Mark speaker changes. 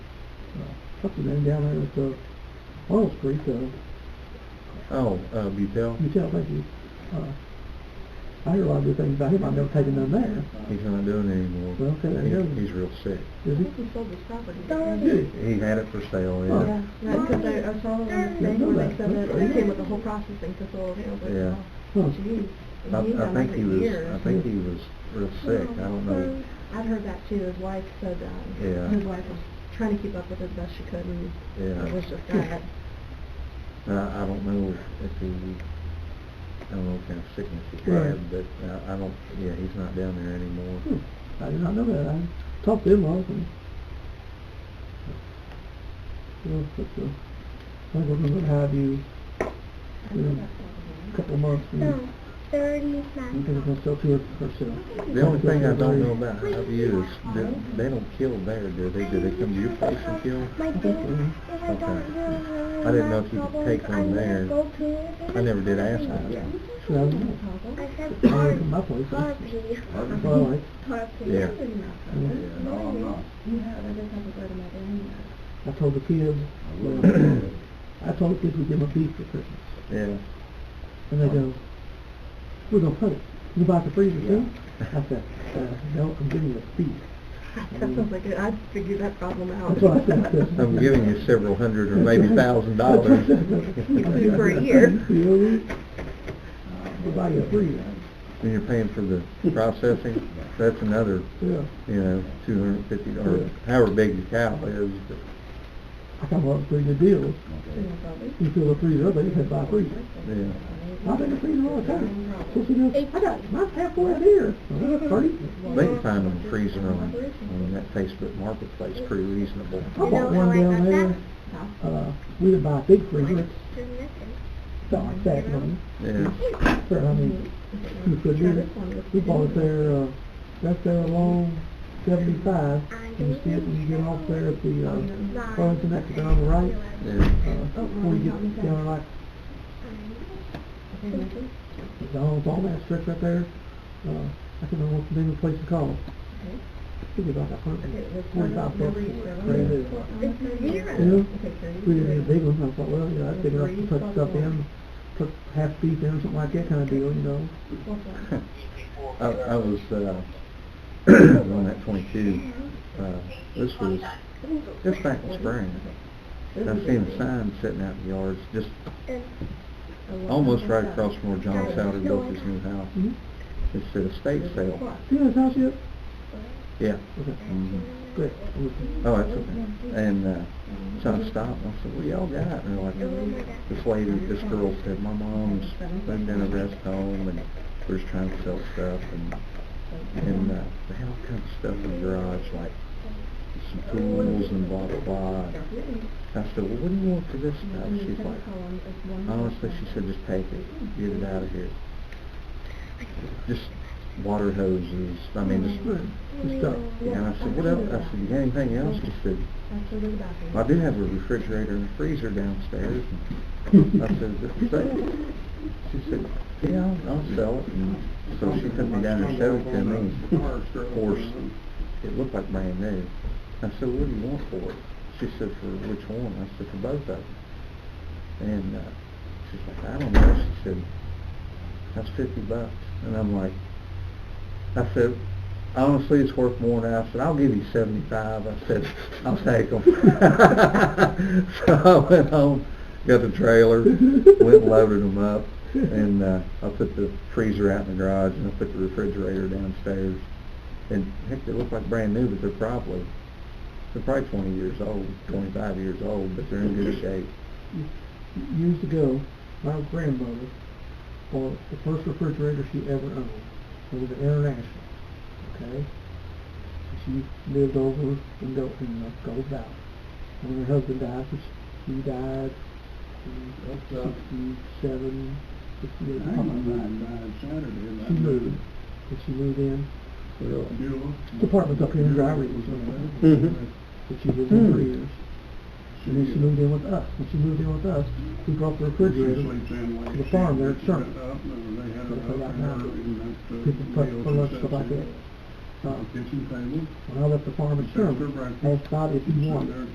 Speaker 1: what's the name down there at the Oil Street, uh,
Speaker 2: Oh, uh, Butel?
Speaker 1: you tell, thank you. Uh, I hear a lot of good things about him, I've never taken none there.
Speaker 2: He's not doing it anymore.
Speaker 1: Well, okay, there
Speaker 2: He-
Speaker 1: you go.
Speaker 2: He's real sick.
Speaker 1: Is
Speaker 3: I
Speaker 1: it?
Speaker 3: think he sold his property.
Speaker 2: He had it for sale,
Speaker 1: Oh.
Speaker 2: yeah.
Speaker 3: Yeah, right, because I, I saw them
Speaker 1: Yeah, I
Speaker 3: today
Speaker 1: know
Speaker 3: where
Speaker 1: that.
Speaker 3: they said that
Speaker 1: That's
Speaker 3: they
Speaker 1: right.
Speaker 3: came with the whole processing facility over.
Speaker 2: Oh, Yeah.
Speaker 1: Huh.
Speaker 3: oh, Geez,
Speaker 2: I,
Speaker 3: and he's
Speaker 2: I
Speaker 3: done
Speaker 2: think
Speaker 3: it
Speaker 2: he
Speaker 3: for
Speaker 2: was,
Speaker 3: years.
Speaker 2: I think he was real sick. I don't know.
Speaker 3: I'd heard that too, his wife said,
Speaker 2: Yeah.
Speaker 3: um, his wife was trying to keep up with it as best she could and
Speaker 2: Yeah.
Speaker 3: it was just diet.
Speaker 2: I, I don't know if he, I don't know what kind of sickness he
Speaker 1: Right.
Speaker 2: had, but I, I don't, yeah, he's not down there anymore.
Speaker 1: Hmm, I did not know that. I talked to him often. Well, but, uh, I was wondering what have you
Speaker 3: I know
Speaker 1: Yeah.
Speaker 3: that
Speaker 1: a
Speaker 3: probably.
Speaker 1: couple months and
Speaker 4: No,
Speaker 1: you can
Speaker 4: 39.
Speaker 1: just sell to her herself.
Speaker 2: The only thing I don't know about Highview is that they don't kill there, do they? Do they come to your place and kill?
Speaker 4: My
Speaker 1: Okay.
Speaker 4: dad, if I
Speaker 2: Okay.
Speaker 4: don't really
Speaker 2: I didn't know
Speaker 4: like
Speaker 2: if you could
Speaker 4: troubles,
Speaker 2: take
Speaker 4: I
Speaker 2: one
Speaker 4: never
Speaker 2: there.
Speaker 4: go to
Speaker 2: I never did ask
Speaker 1: Yeah.
Speaker 2: that.
Speaker 1: So I don't know.
Speaker 4: I
Speaker 1: I
Speaker 4: said
Speaker 1: don't come my
Speaker 4: Harvey.
Speaker 1: place.
Speaker 4: Harvey.
Speaker 1: Harvey. Well, I-
Speaker 4: Harvey.
Speaker 2: Yeah.
Speaker 1: Yeah,
Speaker 2: no, I'm not. Mm.
Speaker 3: You have, I just haven't heard about it.
Speaker 1: I told the kids, well, I told the kids we'd give them a beef for Christmas.
Speaker 2: Yeah.
Speaker 1: And they go, we're going to put it. You buy the freezer too? I said, uh, no, I'm giving you a beef.
Speaker 3: That sounds like, it. I'd figure that problem out.
Speaker 1: That's what I said, yes.
Speaker 2: I'm giving you several hundred or maybe thousand dollars.
Speaker 3: Do for a year.
Speaker 1: You know, buy you a freezer.
Speaker 2: And you're paying for the processing, that's another,
Speaker 1: Yeah.
Speaker 2: you know, two hundred and fifty, or however big the cow is, but
Speaker 1: I kind of want a freezer deal.
Speaker 3: Yeah, probably.
Speaker 1: You fill the freezer up, and you can buy a freezer.
Speaker 2: Yeah.
Speaker 1: I've been a freezer all the time. So she goes, I got my halfway there. Well, that's pretty.
Speaker 2: they can find them freezing on, on that Facebook Marketplace pretty reasonable.
Speaker 1: I bought one down there. Uh, we didn't buy a big freezer. It's not like that one.
Speaker 2: Yeah.
Speaker 1: So, I mean, you could do it. We bought it there, uh, that's there along seventy-five. And you see it when you get off there at the, uh, Burlington exit on the right.
Speaker 2: Yeah.
Speaker 1: Uh, before you get down like It's all, it's all that stretch right there. Uh, I can't remember what the name of the place is called. Think about that part. Forty-five bucks. Crazy. Yeah. We didn't need a big one. I thought, well, you know, that's big enough to put stuff in, put half beef in, something like that kind of deal, you know.
Speaker 2: I, I was, uh, on that twenty-two, uh, this was, just back in spring. I seen a sign sitting out in the yards, just
Speaker 3: Oh,
Speaker 2: almost right across from where John Souter built his new house.
Speaker 1: Mhm.
Speaker 2: It said estate sale.
Speaker 1: Do you know his house yet?
Speaker 2: Yeah.
Speaker 1: Okay.
Speaker 2: Mhm.
Speaker 1: Good. I'm listening.
Speaker 2: Oh, that's okay. And uh, so I stopped and I said, what y'all got? And they're like, this lady, this girl said, my mom's lived in a rest home and we're just trying to sell stuff and, and uh, they had all kinds of stuff in the garage, like some tools and blah, blah, blah. I said, well, what do you want for this stuff? She's like, honestly, she said, just take it, get it out of here. Just water hoses, I mean, just
Speaker 1: Good stuff.
Speaker 2: yeah, and I said, what else? I said, you got anything else? She said, I do have a refrigerator and freezer downstairs. I said, "Is it for sale?" She said, yeah, I'll- I'll sell it. And so she took me down and showed it to me. and Of course, it looked like brand new. I said, what do you want for it? She said, for which one? I said, for both of them. And uh, she's like, I don't know. She said, that's 50 bucks. And I'm like, I said, honestly, it's worth more now. I said, I'll give you 75. I said, I'll take them. so I went home, got the trailer, went and loaded them up, and uh, I put the freezer out in the garage, and I put the refrigerator downstairs. And heck, they look like brand new, but they're probably they're probably 20 years old, 25 years old, but they're in good shape.
Speaker 1: Years ago, my grandmother bought the first refrigerator she ever owned. It was an International, okay? She lived over in Gold, in uh, Gold Valley. And when her husband died, which he died in uh, sixty-seven, sixty-eight. She moved, and she moved in. Apartments up here in Dry Ridge,
Speaker 5: Mm-hmm.
Speaker 1: that she lived in for
Speaker 2: Hmm.
Speaker 1: years. And then she moved in with us. When she moved in with us, we brought the refrigerator to the farm there at Sherman.
Speaker 2: Oh.
Speaker 1: People put for lunch stuff like that. Uh,
Speaker 5: Kitchen table.
Speaker 1: when I left the farm at Sherman, I asked Todd if he wanted